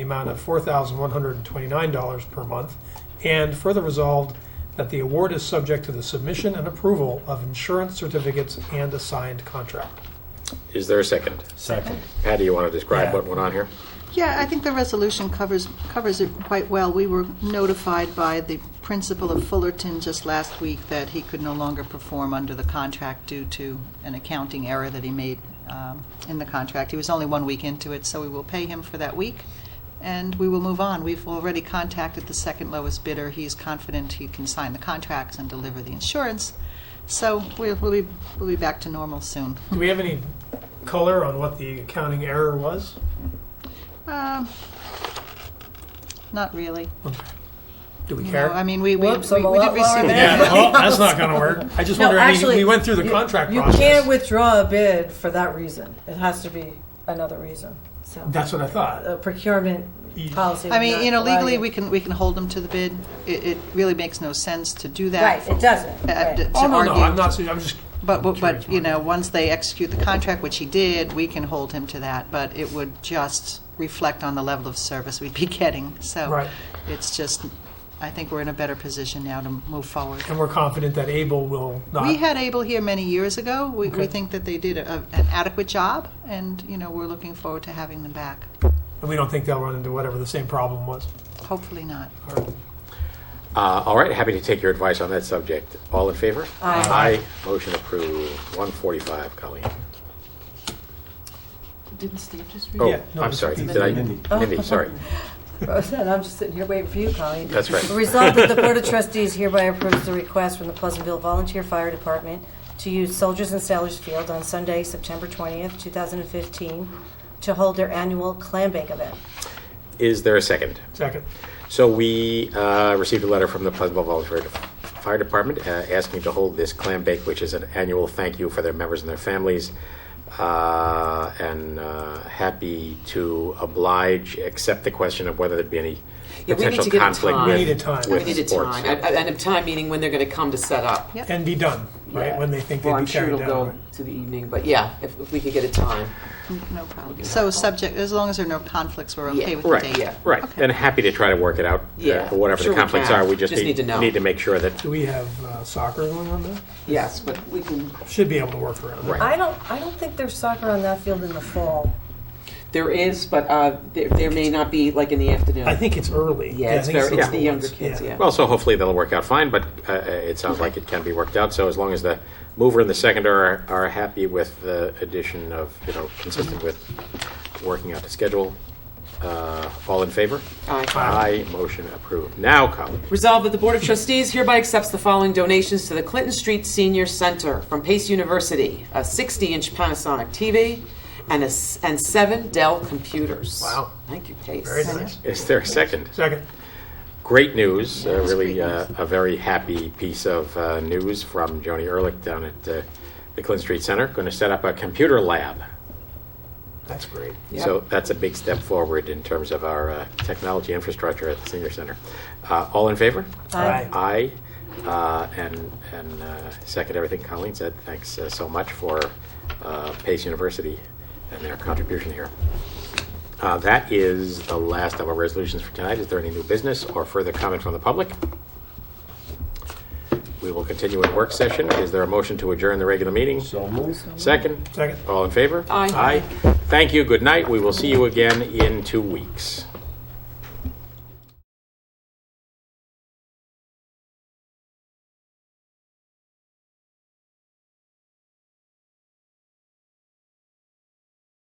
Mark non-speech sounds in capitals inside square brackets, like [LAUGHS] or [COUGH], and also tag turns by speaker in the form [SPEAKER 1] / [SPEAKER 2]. [SPEAKER 1] amount of $4,129 per month, and further resolved that the award is subject to the submission and approval of insurance certificates and a signed contract.
[SPEAKER 2] Is there a second?
[SPEAKER 3] Second.
[SPEAKER 2] Patty, you want to describe
[SPEAKER 3] Yeah.
[SPEAKER 2] what went on here?
[SPEAKER 4] Yeah, I think the resolution covers, covers it quite well. We were notified by the principal of Fullerton just last week that he could no longer perform under the contract due to an accounting error that he made um, in the contract. He was only one week into it, so we will pay him for that week, and we will move on. We've already contacted the second lowest bidder. He's confident he can sign the contracts and deliver the insurance, so we'll we'll be, we'll be back to normal soon.
[SPEAKER 1] Do we have any color on what the accounting error was?
[SPEAKER 4] Uh, Not really.
[SPEAKER 1] Do we
[SPEAKER 4] No,
[SPEAKER 1] care?
[SPEAKER 4] I mean, we, we, we we
[SPEAKER 3] Whoops, I'm a lot
[SPEAKER 4] did
[SPEAKER 3] lower
[SPEAKER 4] receive.
[SPEAKER 3] than
[SPEAKER 1] Yeah,
[SPEAKER 3] everybody
[SPEAKER 1] well, that's
[SPEAKER 3] else.
[SPEAKER 1] not going to work. I just
[SPEAKER 3] No,
[SPEAKER 1] wonder, I mean,
[SPEAKER 3] actually,
[SPEAKER 1] we went through the
[SPEAKER 3] you-
[SPEAKER 1] contract
[SPEAKER 3] You
[SPEAKER 1] process.
[SPEAKER 3] can't withdraw a bid for that reason. It has to be another reason. So
[SPEAKER 1] That's what I thought.
[SPEAKER 3] the procurement policy.
[SPEAKER 4] [LAUGHS] I
[SPEAKER 3] would
[SPEAKER 4] mean,
[SPEAKER 3] not
[SPEAKER 4] you know,
[SPEAKER 3] allow
[SPEAKER 4] legally, we can, we can hold them to the bid. It, it really makes no sense to do that.
[SPEAKER 3] Right, it doesn't.
[SPEAKER 4] uh,
[SPEAKER 3] Right.
[SPEAKER 4] to- to
[SPEAKER 1] Oh, no, no,
[SPEAKER 4] argue.
[SPEAKER 1] I'm not, I'm just,
[SPEAKER 4] But, but-
[SPEAKER 1] Curious
[SPEAKER 4] but, you
[SPEAKER 1] why.
[SPEAKER 4] know, once they execute the contract, which he did, we can hold him to that, but it would just reflect on the level of service we'd be [LAUGHS] getting. So
[SPEAKER 1] Right.
[SPEAKER 4] it's just, I think we're in a better position now to move forward.
[SPEAKER 1] and we're confident that Abel will not.
[SPEAKER 4] We had Able here many years ago. We, we
[SPEAKER 1] Okay.
[SPEAKER 4] think that they did a- an adequate job, and, you know, we're looking forward to having them back.
[SPEAKER 1] And we don't think they'll run into whatever the same problem was.
[SPEAKER 4] Hopefully not.
[SPEAKER 2] Uh, all right, happy to take your advice on that subject. All in favor?
[SPEAKER 3] Aye.
[SPEAKER 2] Aye. Motion approved. 145, Colleen.
[SPEAKER 5] Didn't Steve just read?
[SPEAKER 2] Oh,
[SPEAKER 1] Yeah, no,
[SPEAKER 2] I'm
[SPEAKER 1] it's
[SPEAKER 2] sorry.
[SPEAKER 1] Mindy.
[SPEAKER 2] Did I?
[SPEAKER 6] Mindy.
[SPEAKER 2] Mindy, sorry.
[SPEAKER 3] [LAUGHS] Roseanne, I'm just sitting here waiting for you, Colleen.
[SPEAKER 2] That's right.
[SPEAKER 3] The result that the Board of Trustees hereby approves the request from the Pleasantville Volunteer Fire Department to use Soldiers and Sailors Field on Sunday, September 20th, 2015, to hold their annual clam bake event.
[SPEAKER 2] Is there a second?
[SPEAKER 1] Second.
[SPEAKER 2] So we uh, received a letter from the Pleasantville Volunteer Fire Department uh, asking to hold this clam bake, which is an annual thank you for their members and their families. Uh, and uh, happy to oblige, except the question of whether there'd be any
[SPEAKER 5] Yeah, we need
[SPEAKER 2] potential
[SPEAKER 5] to give it
[SPEAKER 2] conflict
[SPEAKER 5] time.
[SPEAKER 2] with,
[SPEAKER 1] We need a time.
[SPEAKER 2] with
[SPEAKER 5] We need a
[SPEAKER 2] sports.
[SPEAKER 5] time, and- and a time meaning when they're going to come to set up.
[SPEAKER 4] Yep.
[SPEAKER 1] And be done, right, when they think
[SPEAKER 5] Well,
[SPEAKER 1] they'd
[SPEAKER 5] I'm
[SPEAKER 1] be
[SPEAKER 5] sure it'll
[SPEAKER 1] carried
[SPEAKER 5] go
[SPEAKER 1] down.
[SPEAKER 5] to the evening, but yeah, if if we could get a time.
[SPEAKER 4] No problem. So subject, as long as there are no conflicts, we're okay
[SPEAKER 5] Yeah.
[SPEAKER 4] with the
[SPEAKER 2] Right,
[SPEAKER 4] date?
[SPEAKER 5] Yeah.
[SPEAKER 2] right. And happy to try to work it out. uh,
[SPEAKER 5] Yeah,
[SPEAKER 2] whatever
[SPEAKER 5] sure
[SPEAKER 2] the
[SPEAKER 5] we
[SPEAKER 2] conflicts
[SPEAKER 5] can.
[SPEAKER 2] are, we just,
[SPEAKER 5] Just need to know.
[SPEAKER 2] Need to make sure that
[SPEAKER 1] Do we have uh, soccer going on there?
[SPEAKER 5] Yes, but we can,
[SPEAKER 1] Should be able to work around that.
[SPEAKER 2] Right.
[SPEAKER 3] I don't, I don't think there's soccer on that field in the fall.
[SPEAKER 5] there is, but uh, there there may not be, like, in the afternoon.
[SPEAKER 1] I think it's early.
[SPEAKER 5] Yeah, it's
[SPEAKER 1] I think
[SPEAKER 5] very- it's
[SPEAKER 1] the
[SPEAKER 5] the
[SPEAKER 1] little
[SPEAKER 5] younger
[SPEAKER 1] ones.
[SPEAKER 5] kids, yeah.
[SPEAKER 2] Well, so hopefully that'll work out fine, but uh, uh, it sounds like it can be worked out. So as long as the mover and the seconder are, are happy with the addition of, you know, consistent with working out the schedule, uh, all in favor?
[SPEAKER 5] Aye.
[SPEAKER 2] Aye, motion approved. Now, Colleen,
[SPEAKER 5] Resolved that the Board of Trustees hereby accepts the following donations to the Clinton Street Senior Center from Pace University, a 60-inch Panasonic TV and a, s- and seven Dell computers.
[SPEAKER 1] Wow.
[SPEAKER 5] Thank you, Pace.
[SPEAKER 1] Very nice.
[SPEAKER 2] is there a second?
[SPEAKER 1] Second.
[SPEAKER 2] Great news, uh, really uh, a very happy piece of uh, news from Joni Ehrlich down at uh, the Clinton Street Center, going to set up a computer lab.
[SPEAKER 1] That's great.
[SPEAKER 5] Yep.
[SPEAKER 2] So that's a big step forward in terms of our uh, technology infrastructure at the senior center. Uh, All in favor?
[SPEAKER 1] Aye.
[SPEAKER 2] Aye. Uh, And, and uh, second everything Colleen said, thanks uh, so much for uh, Pace University and their contribution here. Uh, That is the last of our resolutions for tonight. Is there any new business or further comment from the public? We will continue in work session. Is there a motion to adjourn the regular meeting?
[SPEAKER 6] So moved.
[SPEAKER 2] Second?
[SPEAKER 1] Second.
[SPEAKER 2] All in favor?
[SPEAKER 5] Aye.
[SPEAKER 2] Aye. Thank you, good night. We will see you again in two weeks.